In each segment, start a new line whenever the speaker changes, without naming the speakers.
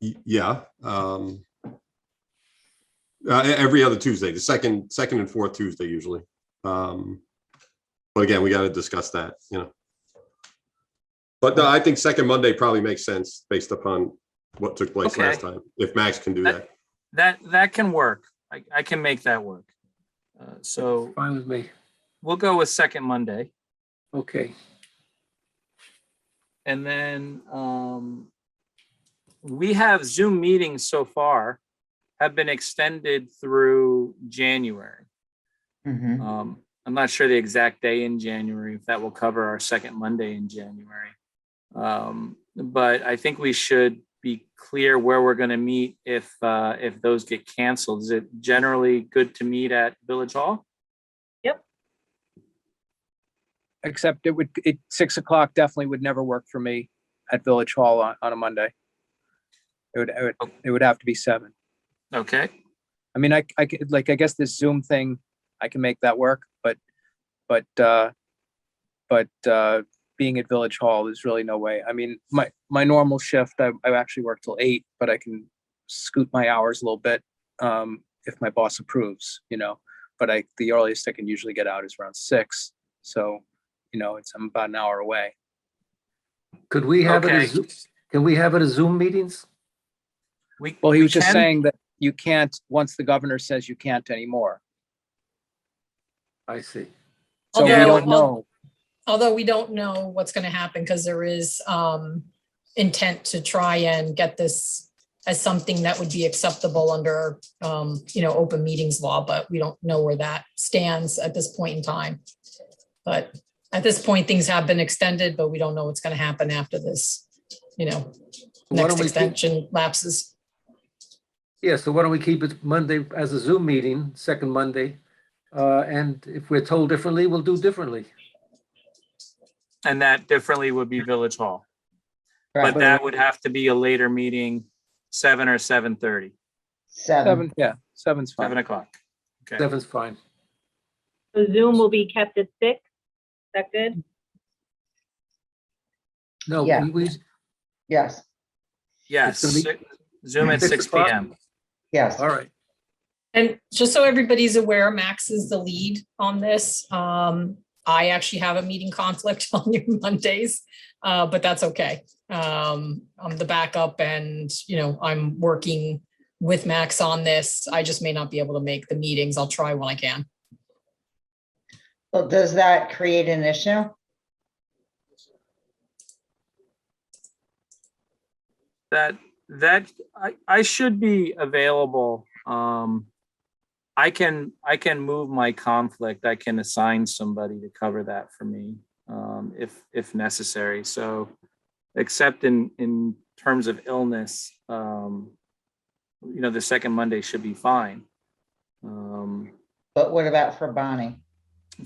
Y- Yeah. um, uh, e- Every other Tuesday, the second, second and fourth Tuesday usually. Um, But again, we got to discuss that, you know. But no, I think second Monday probably makes sense based upon what took place
Okay.
last time, if Max can do that.
That, that can work. I, I can make that work. Uh, So
Fine with me.
we'll go with second Monday
Okay.
and then um, we have Zoom meetings so far have been extended through January.
Mhm.
Um, I'm not sure the exact day in January, if that will cover our second Monday in January. Um, but I think we should be clear where we're gonna meet if, uh, if those get canceled. Is it generally good to meet at Village Hall?
except it would, it, six o'clock definitely would never work for me at Village Hall on, on a Monday. It would, it would, it would have to be seven.
Okay,
I mean, I, I could, like, I guess this Zoom thing, I can make that work, but, but, uh, but, uh, being at Village Hall, there's really no way. I mean, my, my normal shift, I, I actually work till eight, but I can scoot my hours a little bit, um, if my boss approves, you know? But I, the earliest I can usually get out is around six, so, you know, it's, I'm about an hour away.
Could we have it,
Okay.
as Zo- can we have it as Zoom meetings?
we.
Well, he
we
was just
can-
saying that you can't, once the governor says you can't anymore.
I see.
So we
Although-
don't know.
although we don't know what's going to happen because there is um, intent to try and get this as something that would be acceptable under, um, you know, open meetings law, but we don't know where that stands at this point in time. But at this point, things have been extended, but we don't know what's going to happen after this, you know,
Why don't
next
we keep-
extension lapses.
Yeah, so why don't we keep it Monday as a Zoom meeting, second Monday? Uh, and if we're told differently, we'll do differently.
And that differently would be Village Hall,
Right,
but that would have to be a later meeting, seven or seven thirty,
Seven.
Seven, yeah, seven's
seven
fine.
o'clock. Okay,
Seven's fine.
So Zoom will be kept at six. Is that good?
No,
Yeah.
we, we,
Yes,
yes,
It's gonna
Zoom at six P
o'clock?
M.
yes.
all right.
And just so everybody's aware, Max is the lead on this. Um, I actually have a meeting conflict on your Mondays, uh, but that's okay. Um, I'm the backup and, you know, I'm working with Max on this. I just may not be able to make the meetings. I'll try when I can.
Well, does that create an issue?
that that I, I should be available. Um, I can I can move my conflict. I can assign somebody to cover that for me um, if if necessary. So, except in in terms of illness, um, you know, the second Monday should be fine. Um,
But what about for Bonnie?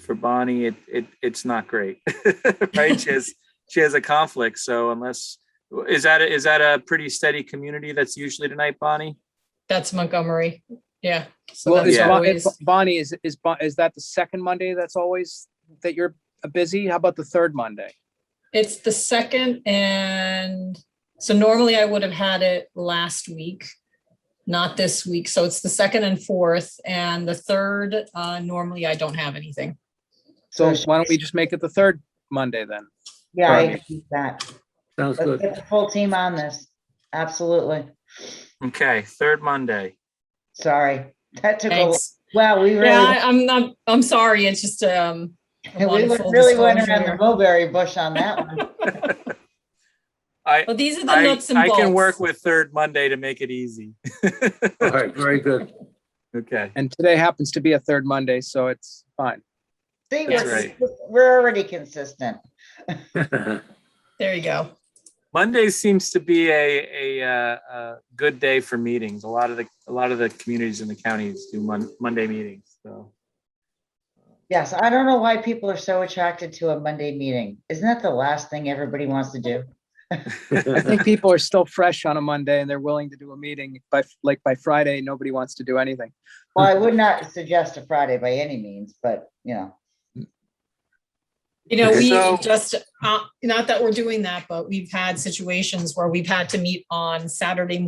for Bonnie, it, it, it's not great, right? She has, she has a conflict. So unless, is that, a- is that a pretty steady community that's usually tonight, Bonnie?
That's Montgomery. Yeah. So
Well,
that's
is
Yeah.
Bon- is
always,
Bon- Bonnie, is, is, Bon- is that the second Monday that's always, that you're busy? How about the third Monday?
it's the second and so normally I would have had it last week. not this week. So it's the second and fourth and the third, uh, normally I don't have anything.
So
So-
why don't we just make it the third Monday then?
Yeah, I
Bonnie.
agree with that.
Sounds
Let's
good.
get the full team on this. Absolutely.
Okay, third Monday.
Sorry. That took a,
Thanks.
wow, we
Yeah,
really,
I- I'm not, I'm sorry. It's just, um, I
we
wanted
went-
full
really went around the
disclosure.
mulberry bush on that one.
I,
well, these are the
I,
nuts and
I
bolts.
can work with third Monday to make it easy.
All right, very good.
Okay.
And today happens to be a third Monday, so it's fine.
See,
That's
we're,
right.
we're already consistent.
There you go.
Monday seems to be a, a, uh, a good day for meetings. A lot of the, a lot of the communities in the counties do Mon- Monday meetings. So
Yes, I don't know why people are so attracted to a Monday meeting. Isn't that the last thing everybody wants to do?
I think people are still fresh on a Monday and they're willing to do a meeting, but like by Friday, nobody wants to do anything.
Well, I would not suggest a Friday by any means, but you know,
You know, we
So-
just, uh, not that we're doing that, but we've had situations where we've had to meet on Saturday